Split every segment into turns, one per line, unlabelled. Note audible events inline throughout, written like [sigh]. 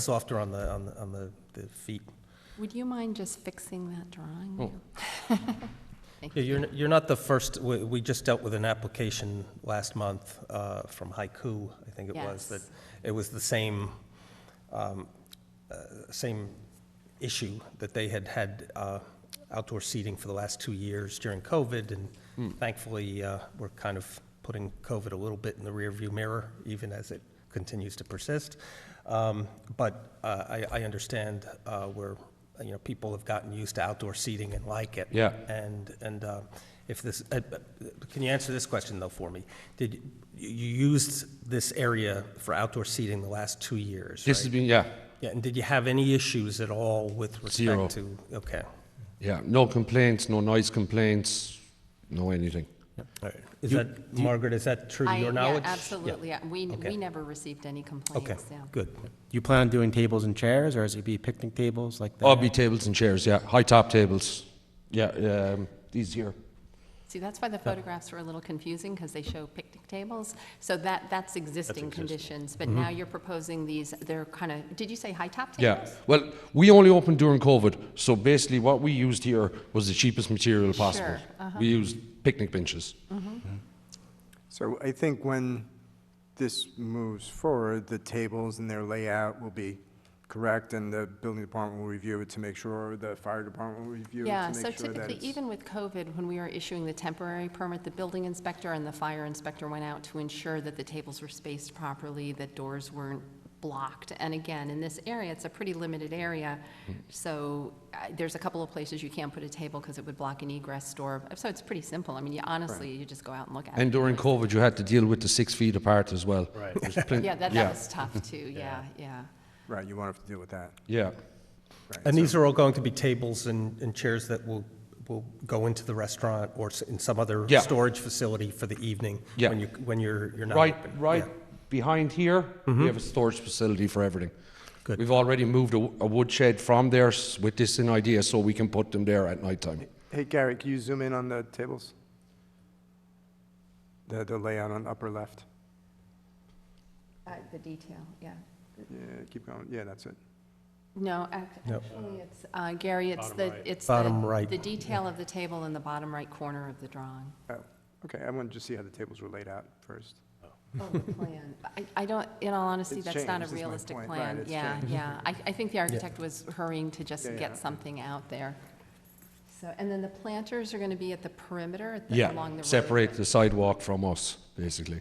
softer on the, on the, on the, the feet.
Would you mind just fixing that drawing?
Oh.
now? [laughs] Thank
Yeah, You're, you're not the first, we, we just dealt with an application last month uh, from Haiku, I think it was, that
Yes.
it was the same, um, uh, same issue, that they had had uh, outdoor seating for the last two years during COVID, and thankfully, uh, we're kind of putting COVID a little bit in the rearview mirror, even as it continues to persist. Um, But uh, I, I understand uh, where, you know, people have gotten used to outdoor seating and like it.
Yeah.
And, and uh, if this, uh, uh, can you answer this question though for me? Did, you you used this area for outdoor seating the last two years,
This has
right?
been, yeah,
Yeah, and did you have any issues at all with
Zero.
respect to? Okay,
yeah. No complaints, no noise complaints, no anything.
all right. Is that, Margaret, is that true to
I-
your
yeah,
knowledge? Yeah.
Absolutely. yeah. We,
Okay.
we never received any
Okay,
complaints, yeah.
good.
You plan on doing tables and chairs, or is it be picnic tables like that?
All Oh, be tables and chairs, yeah. High top tables, yeah. Um, these here.
See, that's why the photographs were a little confusing, because they show picnic tables. So that, that's existing conditions,
Mm-hmm.
but now you're proposing these, they're kind of, did you say high-top
Yeah.
tables?
Well, we only opened during COVID, so basically what we used here was the cheapest material possible.
Sure, uh-huh.
We used picnic benches.
So I think when this moves forward, the tables and their layout will be correct, and the building department will review it to make sure, the fire department will review it
Yeah,
to
so
make sure that
typically,
it's...
even with COVID, when we were issuing the temporary permit, the building inspector and the fire inspector went out to ensure that the tables were spaced properly, that doors weren't blocked. And again, in this area, it's a pretty limited area, so uh, there's a couple of places you can't put a table because it would block an egress door. So it's pretty simple. I mean, you honestly, you just go out and look at it.
And during COVID, you had to deal with the six feet apart as well. Right.
[laughs] Yeah, that, that was tough
[laughs]
too, yeah, yeah.
Right, you won't have to deal with that.
Yeah.
Right,
And
so-
these are all going to be tables and, and chairs that will, will go into the restaurant or s- in some other
Yeah.
storage facility for the evening?
Yeah.
When you, when you're, you're not
Right,
open?
right
Yeah.
behind here, we have a storage facility for everything.
Good.
We've already moved a, a wood shed from there s- with this in idea, so we can put them there at night time.
Hey, Gary, can you zoom in on the tables? The, the layout on upper left?
Uh, The detail, yeah.
Yeah, keep going, yeah, that's it.
No, ac-
No.
actually, it's, uh, Gary, it's the, it's the...
Bottom right.
The detail of the table in the bottom right corner of the drawing.
Oh, okay, I wanted to see how the tables were laid out first.
Oh, the plan. [laughs] I, I don't, in all honesty,
It's
that's not
changed,
a
is my
realistic
point. Right,
plan.
it's
Yeah,
changed.
yeah. I, I think the architect was hurrying to just
Yeah, yeah.
get something out there. So, and then the planters are going to be at the perimeter, at the- along the road.
Separate the sidewalk from us, basically.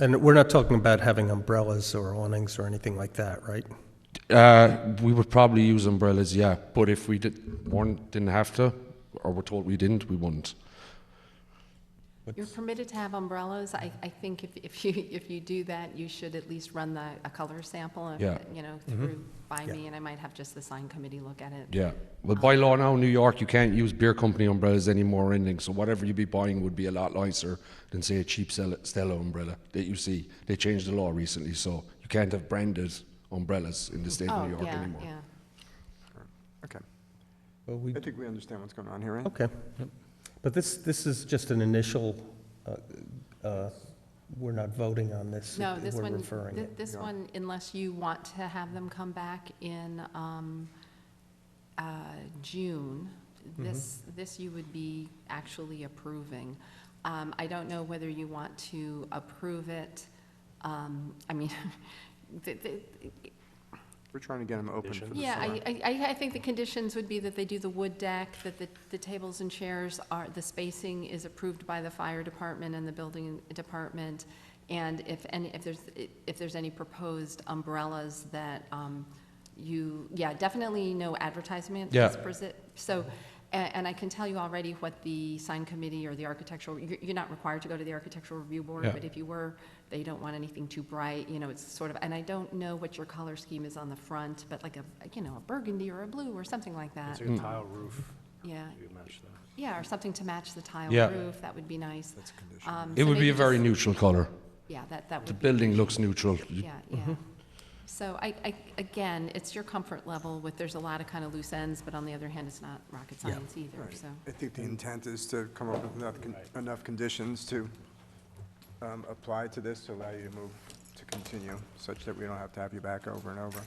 And we're not talking about having umbrellas or awnings or anything like that, right?
Uh, we would probably use umbrellas, yeah, but if we did, weren't, didn't have to, or were told we didn't, we wouldn't.
You're permitted to have umbrellas. I, I think if, if you, if you do that, you should at least run the, a color sample, of
Yeah.
it, you know, through by
Yeah.
me, and I might have just the sign committee look at it.
Yeah. Well, by law now in New York, you can't use beer company umbrellas anymore, or anything. So whatever you be buying would be a lot nicer than, say, a cheap Stella Stella umbrella that you see. They changed the law recently, so you can't have branded umbrellas in the state of
Oh,
New York
yeah,
anymore.
yeah.
Okay,
Well, we
I think we understand what's going on here, right?
Okay. But this, this is just an initial, uh, uh, we're not voting on this.
No, this
We're
one,
referring
thi-
it.
this one, unless you want to have them come back in um, uh, June,
Mm-hmm.
this, this you would be actually approving. Um, I don't know whether you want to approve it, um, I mean, [laughs] the- the-
We're trying to get them open for the
yeah,
summer.
I, I, I think the conditions would be that they do the wood deck, that the, the tables and chairs are, the spacing is approved by the fire department and the building department. And if, any if there's, if there's any proposed umbrellas that, um, you, yeah, definitely no advertisement.
Yeah.
is presi- So, a- and I can tell you already what the sign committee or the architectural, you're, you're not required to go to the architectural review board,
Yeah.
but if you were, they don't want anything too bright, you know, it's sort of, and I don't know what your color scheme is on the front, but like a, you know, a burgundy or a blue or something like that.
Hmm.
It's like a tile roof,
Yeah,
you match that.
yeah, or something to match the tile
Yeah.
roof, that would be nice. Um, That's a condition.
It would be a very neutral colour.
Yeah, that, that
The
would be.
building looks neutral. You-
Yeah, yeah. So I, I, again, it's your comfort level with, there's a lot of kind of loose ends, but on the other hand, it's not rocket science either, so.
I think the intent is to come up with enough, con- enough conditions to um, apply to this to allow you to move, to continue, such that we don't have to have you back over and over.